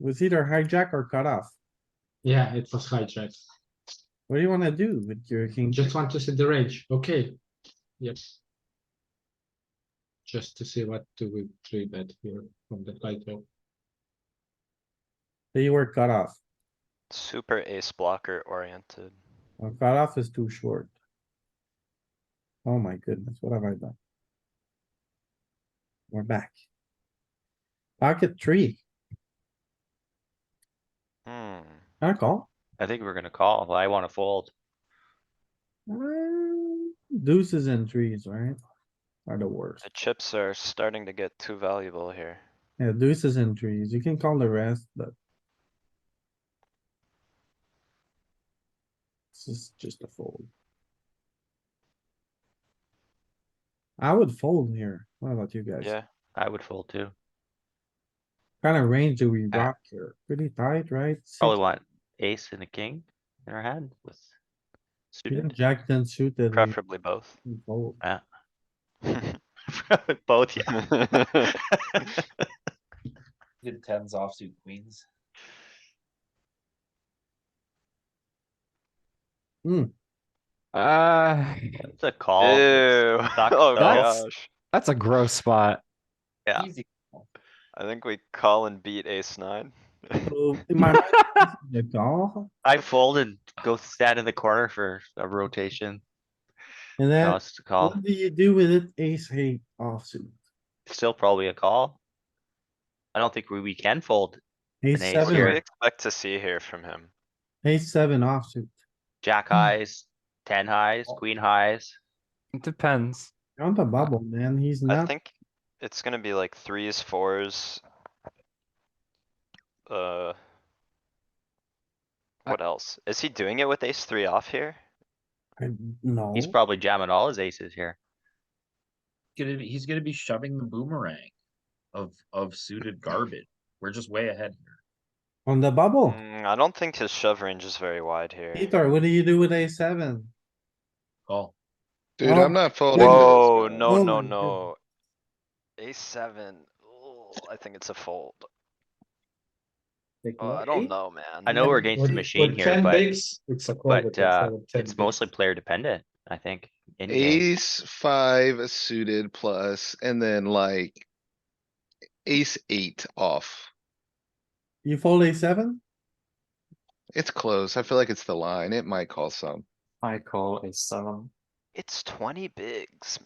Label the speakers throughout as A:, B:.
A: was either hijack or cut off.
B: Yeah, it was hijack.
A: What do you wanna do with your king?
B: Just want to see the range. Okay. Yes. Just to see what do we three bet here from the title.
A: They were cut off.
C: Super ace blocker oriented.
A: Well, cut off is too short. Oh my goodness, what have I done? We're back. Pocket three,
C: Hmm,
A: I call.
D: I think we're gonna call. I wanna fold.
A: Mm, Deuces and threes, right? Are the worst.
C: the chips are starting to get too valuable here.
A: Yeah, deuces and threes. You can call the rest, but. This is just a fold. I would fold here. What about you guys?
C: Yeah,
D: I would fold too.
A: Kinda range do we
D: Ah.
A: rock here? Pretty tight, right? Six-
D: Probably want ace and a king in our hand with
A: even
D: suited.
A: Jack then suited. we
C: preferably both.
A: can fold.
D: Both, yeah.
E: Good tens offsuit queens.
F: Hmm. Uh,
D: It's a call.
C: Ew,
D: Sucks,
C: oh
D: though.
F: That's-
C: gosh,
F: that's a gross spot.
D: Yeah.
E: Easy.
C: I think we call and beat ace nine.
A: So, in my mind, this is The call,
D: I fold and go stand in the corner for a rotation.
A: and
D: No,
A: then
D: it's a call.
A: what do you do with it? Ace eight offsuit.
D: Still probably a call. I don't think we, we can fold.
A: Ace
D: ace
C: What do
A: seven,
C: we
D: here.
C: expect to see here from him?
A: ace seven offsuit.
D: Jack highs, ten highs, queen highs.
F: It depends.
A: You're On the bubble, man. He's
C: I
A: not,
C: think it's gonna be like threes, fours. Uh. What else? Is he doing it with ace three off here?
A: I- no.
D: He's probably jamming all his aces here.
E: Gonna be, he's gonna be shoving the boomerang of, of suited garbage. We're just way ahead here.
A: On the bubble,
C: Mm, I don't think his shove range is very wide here.
A: Peter, what do you do with a seven?
E: Call.
G: Dude,
A: Oh,
G: I'm not folding. this,
C: Whoa,
G: man.
C: no,
A: Oh
C: no,
A: my
C: no. Ace seven, Ooh, I think it's a fold. Oh, I don't know, man.
D: I know we're
B: With-
D: against the
B: with
D: machine here,
B: 10
D: but
B: bigs, It's a call.
D: but,
B: with
D: uh,
B: instead of 10
D: it's
B: bigs.
D: mostly player dependent, I think. in game.
G: Ace five suited plus, and then like. Ace eight off.
A: You fold a seven?
G: It's close. I feel like it's the line. It might call some.
F: I call a seven.
C: It's twenty bigs,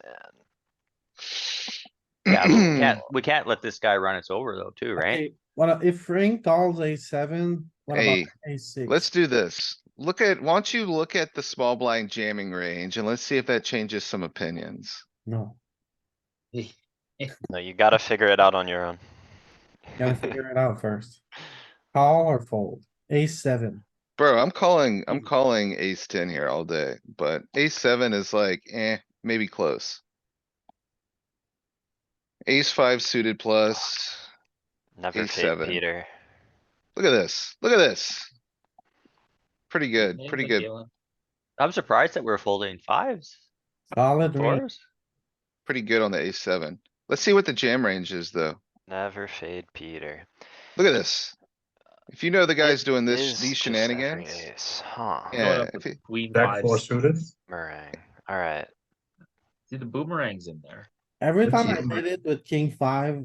C: man.
D: Yeah, but we can't, we can't let this guy run us over though, too, right?
A: Okay, What if Frank calls a seven? What about
G: Hey,
A: a six?
G: Let's do this. Look at, why don't you look at the small blind jamming range and let's see if that changes some opinions.
A: No,
C: No, you gotta figure it out on your own.
A: gotta figure it out first. Call or fold? A seven.
G: Bro, I'm calling, I'm calling ace ten here all day, but ace seven is like, eh, maybe close. Ace five suited plus.
C: Never
G: Ace
C: fade
G: seven.
C: Peter.
G: Look at this, look at this. Pretty good,
B: Yeah,
G: pretty
B: but
G: good,
B: Galen,
D: I'm surprised that we're folding fives,
A: Solid range.
D: fours.
G: pretty good on the ace seven. Let's see what the jam range is though.
C: Never fade Peter.
G: Look at this. If you know the guy's doing
C: Is
G: this, these
C: just every
G: shenanigans,
C: ace, Huh,
G: Yeah,
B: load up
G: if
B: with
G: it-
E: Queen
H: Jack
E: five.
H: four suited.
C: meringue. Alright,
E: See the boomerangs in there.
A: Every
B: Let's
A: time
B: see.
A: I did it with king five,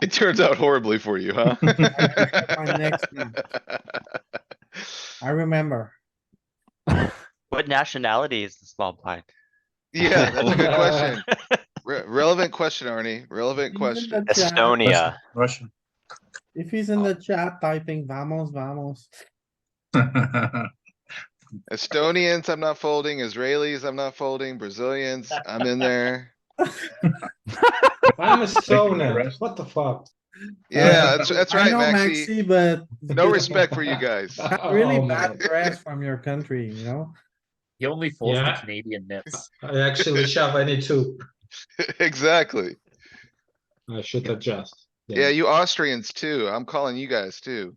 G: it turns out horribly for you, huh?
A: my next one. I remember.
D: What nationality is the small blind?
G: Yeah, that's a good question. Re- Relevant question, Arnie. Relevant
A: If he's in
G: question. Oh.
A: the chat-
C: Estonia.
H: Russian.
A: If he's in the chat typing vamos, vamos,
G: Estonians, I'm not folding. Israelis, I'm not folding. Brazilians, I'm in there.
B: I'm a stoner.
H: rest.
B: What the fuck?
G: Yeah, that's, that's
A: I
G: right,
A: know
G: Maxi.
A: Maxi, but.
G: No respect for you guys.
A: Got Really
B: Oh, man.
A: bad press from your country, you know?
E: He only folds the
B: Yeah.
E: Canadian nips.
B: I actually shove. I need to.
G: Exactly.
B: I should adjust.
G: Yeah, you Austrians too. I'm calling you guys too.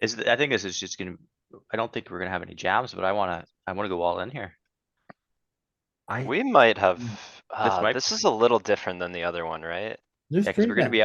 D: Is, th- I think this is just gonna, I don't think we're gonna have any jams, but I wanna, I wanna go all in here.
C: We might have,
D: might
C: ah, uh, this is a little different than the other one, right?
A: Just
D: Yeah, cause we're
A: treat
D: gonna
A: them.
D: be